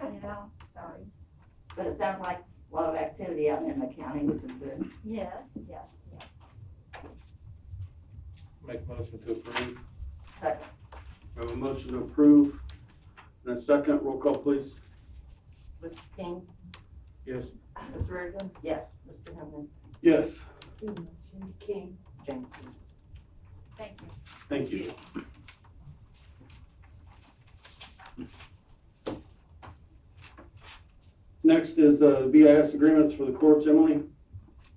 at all, sorry. But it sounds like a lot of activity out in the county, which is good. Yes, yes, yes. Make motion to approve. Second, I have a motion to approve and a second. Roll call, please. Mr. King, Yes. Ms. Reagan, yes. Mr. Henry. Yes, Jimmy King. James King. Thank you. thank you. Next is uh, BIS agreements for the courts. Emily?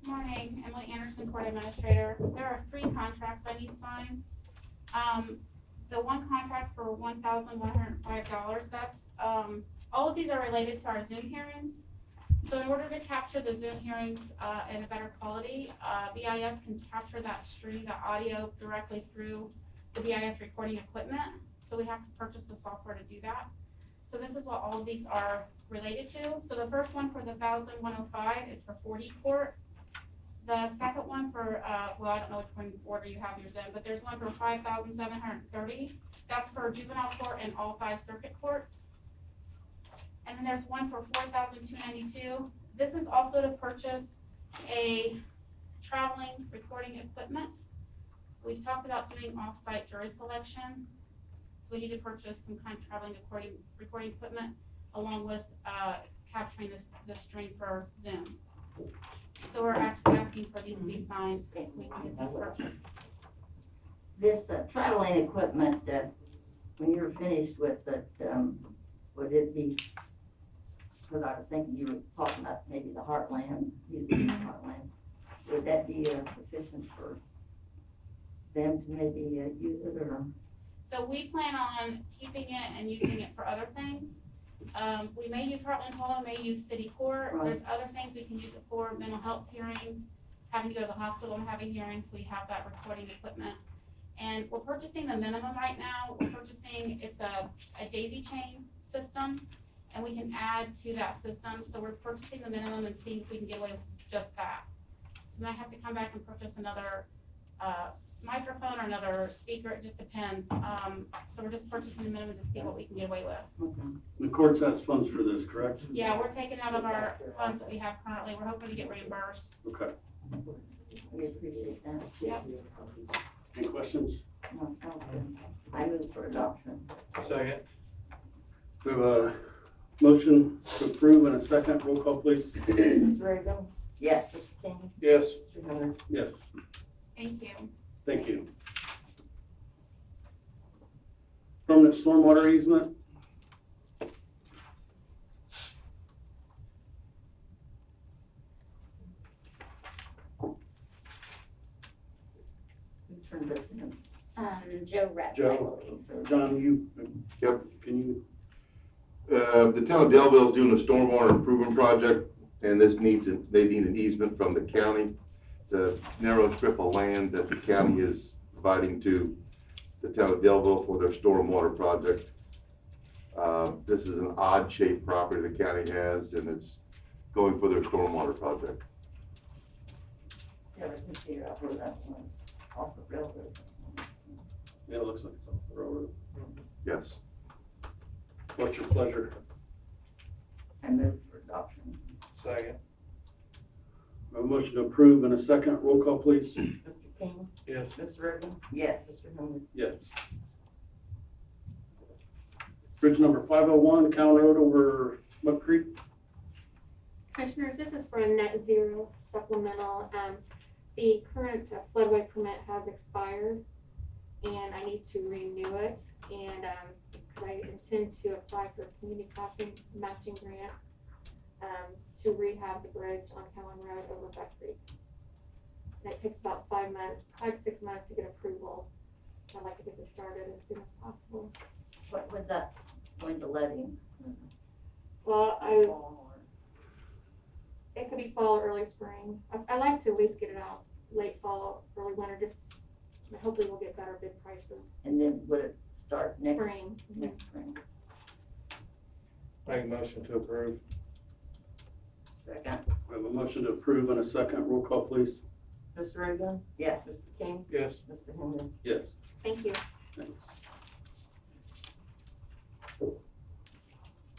Morning, Emily Anderson, Court Administrator. There are three contracts I need signed. Um, the one contract for one thousand one hundred and five dollars, that's, um, all of these are related to our Zoom hearings. So in order to capture the Zoom hearings, uh, in a better quality, uh, BIS can capture that stream, the audio directly through the BIS recording equipment. So we have to purchase the software to do that. So this is what all of these are related to. So the first one for the thousand one oh five is for forty court. The second one for, uh, well, I don't know which one order you have yours in, but there's one for five thousand seven hundred and thirty. That's for juvenile court and all five circuit courts. And then there's one for four thousand two ninety-two. This is also to purchase a traveling recording equipment. We've talked about doing off-site jury selection. So we need to purchase some kind of traveling recording, recording equipment along with, uh, capturing the, the stream for Zoom. So we're actually asking for these to be signed, so we can get this purchased. This uh, traveling equipment, that when you're finished with it, um, would it be, because I was thinking you were talking about maybe the Heartland, using the Heartland. Would that be uh, sufficient for them to maybe uh, use it or? So we plan on keeping it and using it for other things. Um, we may use Heartland Hall, may use city court, there's other things we can use it for, mental health hearings, having to go to the hospital and having hearings, we have that recording equipment. And we're purchasing the minimum right now, we're purchasing, it's a, a daisy chain system, and we can add to that system, so we're purchasing the minimum and seeing if we can get away with just that. So we might have to come back and purchase another, uh, microphone or another speaker, it just depends. Um, so we're just purchasing the minimum to see what we can get away with. The courts has funds for this, correct? Yeah, we're taking out of our funds that we have currently, we're hoping to get reimbursed. Okay. We appreciate that. Yep. Any questions? No, sounds good. I move for adoption. Second. We have a motion to approve and a second. Roll call, please. Ms. Reagan, Yes, Mr. King, Yes. Mr. Henry. Yes, Thank you. thank you. Permanent stormwater easement, we turned this in. Um, Joe Rex, I Joe. believe. John, you. Yep. Can you, Uh, the town of Delville's doing a stormwater improvement project, and this needs, a- they need an easement from the county. It's a narrow strip of land that the county is providing to the town of Delville for their stormwater project. Uh, this is an odd shaped property the county has, and it's going for their stormwater project. Never could figure out where that was, off the railroad. yeah, it looks like it's off the railroad. Yes. What's your pleasure? I move for adoption. Second. We have A motion to approve and a second. Roll call, please. Mr. King, Yes. Ms. Reagan, Yes, Mr. Henry. Yes. Bridge number five oh one, Cow Road over Mud Creek. Commissioners, this is for a net zero supplemental. Um, the current uh, floodway permit has expired and I need to renew it. And, um, 'cause I intend to apply for a community crossing matching grant, um, to rehab the bridge on Cowan Road over Beck Creek. And it takes about five months, five, to six months to get approval. I'd like to get this started as soon as possible. what was that going to let him? Well, I, it could be fall or early spring. I, I like to at least get it out late fall, early winter, just hopefully we'll get better bid prices. And then would it start next? Spring. Next spring. Make a motion to approve. Second. We have a motion to approve and a second. Roll call, please. Ms. Reagan, Yes, Mr. King, Yes. Mr. Henry. Yes. Thank you. Thanks.